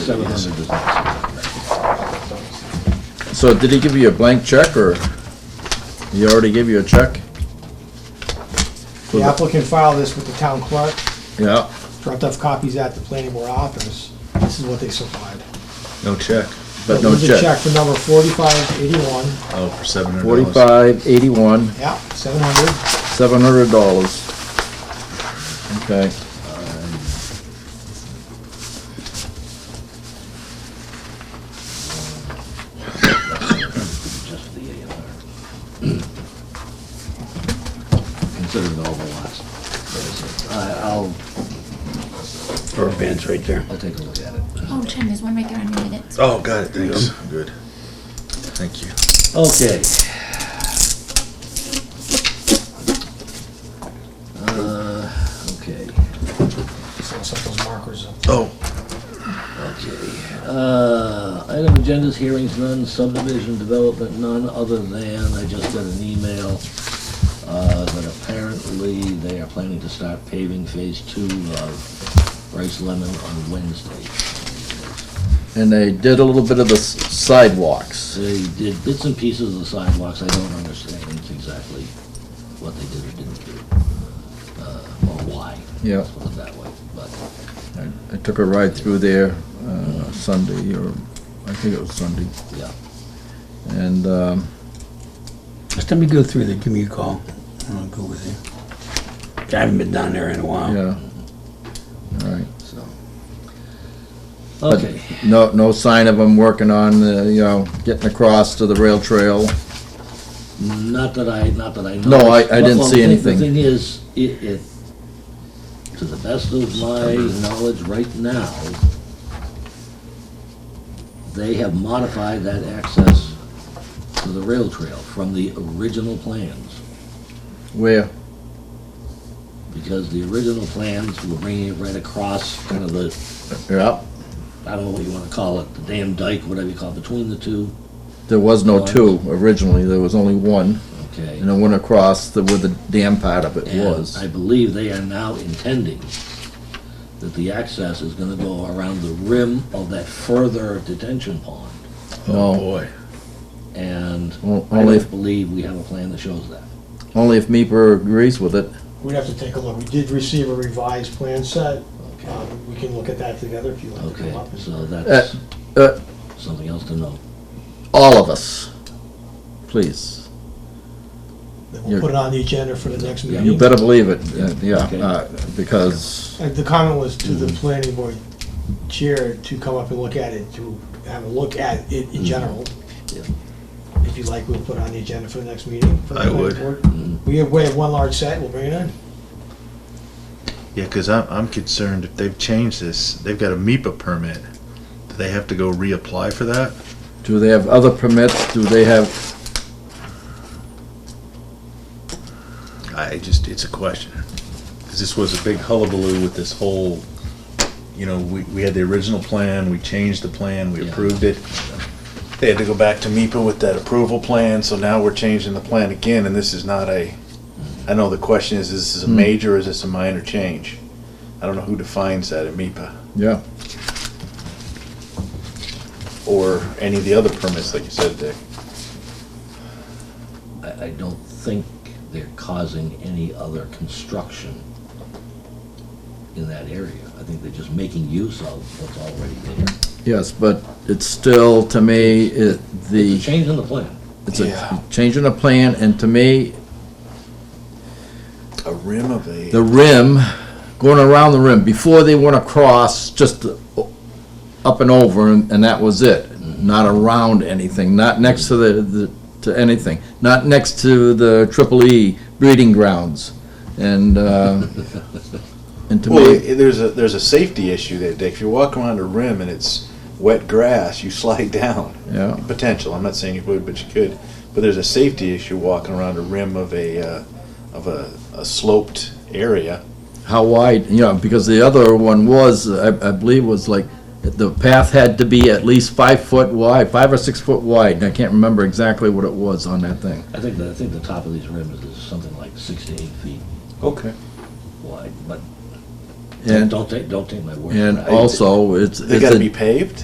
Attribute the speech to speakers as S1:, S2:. S1: Seven hundred.
S2: So did he give you a blank check, or he already gave you a check?
S3: The applicant filed this with the town clerk,
S2: Yeah,
S3: dropped off copies at the planning board office. This is what they supplied.
S1: No check.
S2: but no
S3: There's a check
S2: check.
S3: for number forty-five eighty-one,
S1: Oh, for seven hundred dollars.
S2: Forty-five, eighty-one,
S3: yeah, seven hundred.
S2: seven hundred dollars. Okay,
S4: Consider it all the lots. I- I'll. Or advance right there. I'll take a look at it.
S5: Oh, Jen, there's one right there on your minutes.
S1: Oh, got it, thanks. Good. Thank you.
S4: Okay. Uh, okay,
S3: So set those markers up.
S1: Oh,
S4: okay. Uh, item agendas, hearings none, subdivision development none, other than I just got an email uh, that apparently they are planning to start paving phase two of Rice Lemon on Wednesday.
S2: and they did a little bit of the s- sidewalks.
S4: They did bits and pieces of the sidewalks, I don't understand exactly what they did or didn't do, uh, or why.
S2: Yeah.
S4: Let's Put it that way, but,
S2: I I took a ride through there uh, Sunday, or I think it was Sunday,
S4: yeah.
S2: and, um,
S6: Just let me go through there, give me a call, and I'll go with you. I haven't been down there in a
S4: Oh.
S6: while.
S2: yeah. All right.
S4: So.
S2: But
S4: Okay,
S2: No, no sign of them working on, the, you know, getting across to the rail trail.
S4: not that I, not that I know.
S2: No, I- I
S4: But-
S2: didn't
S4: well, the
S2: see
S4: thing-
S2: anything.
S4: The thing is, it, it, to the best of my knowledge right now, they have modified that access to the rail trail from the original plans.
S2: Where?
S4: because the original plans were bringing it right across, kind of the,
S2: Yeah,
S4: I don't know what you want to call it, the dam dike, whatever you call it, between the two,
S2: there was no two originally, there was only one.
S4: okay?
S2: And it went across the, where the dam part of it
S4: And
S2: was.
S4: I believe they are now intending that the access is going to go around the rim of that further detention pond.
S1: oh
S2: No,
S1: boy.
S4: And
S2: o-
S4: I
S2: only, if
S4: don't believe we have a plan that shows that.
S2: only if MEPR agrees with it.
S3: We'd have to take a look. We did receive a revised plan set.
S4: Okay,
S3: Um, We can look at that together if you like to come up.
S4: Okay.
S3: and-
S4: so that's
S2: uh.
S4: something else to note.
S2: All of us, please.
S3: Then we'll put it on the agenda for the next
S4: Yeah,
S3: meeting.
S2: You better believe it, uh, yeah,
S4: Okay.
S2: uh, because,
S3: Uh, The comment was to the planning board chair to come up and look at it, to have a look at it in general.
S4: Yeah.
S3: If you like, we'll put it on the agenda for the next meeting. for the
S1: I
S3: planning
S1: would.
S3: board.
S2: mm-hmm.
S4: Mm,
S3: We have, we have one large set, we'll bring it in.
S1: Yeah, because I'm, I'm concerned if they've changed this, they've got a MEPA permit. Do they have to go reapply for that?
S2: do they have other permits? Do they have,
S1: I just, it's a question. Because this was a big hullabaloo with this whole, you know, we, we had the original plan, we changed the plan, we
S4: Yeah.
S1: approved it. They had to go back to MEPA with that approval plan, so now we're changing the plan again, and this is not a, I know the question is, is this a major or is this a minor change? I don't know who defines that at MEPA,
S2: yeah,
S1: or any of the other permits, like you said, Dick.
S4: I, I don't think they're causing any other construction in that area. I think they're just making use of what's already there.
S2: yes, but it's still, to me, it, the.
S4: It's a change in the plan.
S2: It's
S1: Yeah.
S2: a change in the plan, and to me,
S1: A rim of a.
S2: the rim, going around the rim, before they went across, just up and over, and and that was it. Not around anything, not next to the, the to anything, not next to the triple E breeding grounds. And, uh, and to
S1: Well,
S2: me,
S1: i- there's a there's a safety issue there, Dick. If you walk around a rim and it's wet grass, you slide down.
S2: Yeah.
S1: Potential. I'm not saying you would, but you could. But there's a safety issue walking around a rim of a uh, of a, a sloped area.
S2: how wide, you know, because the other one was, I, I believe was like, the path had to be at least five foot wide, five or six foot wide, and I can't remember exactly what it was on that thing.
S4: I think, that I think the top of these rims is something like six to eight feet
S1: Okay.
S4: wide, but
S2: And,
S4: Don't take, don't take my word for it.
S2: and
S4: I-
S2: also, it's.
S1: They
S2: it's
S1: gotta
S2: a-
S1: be paved?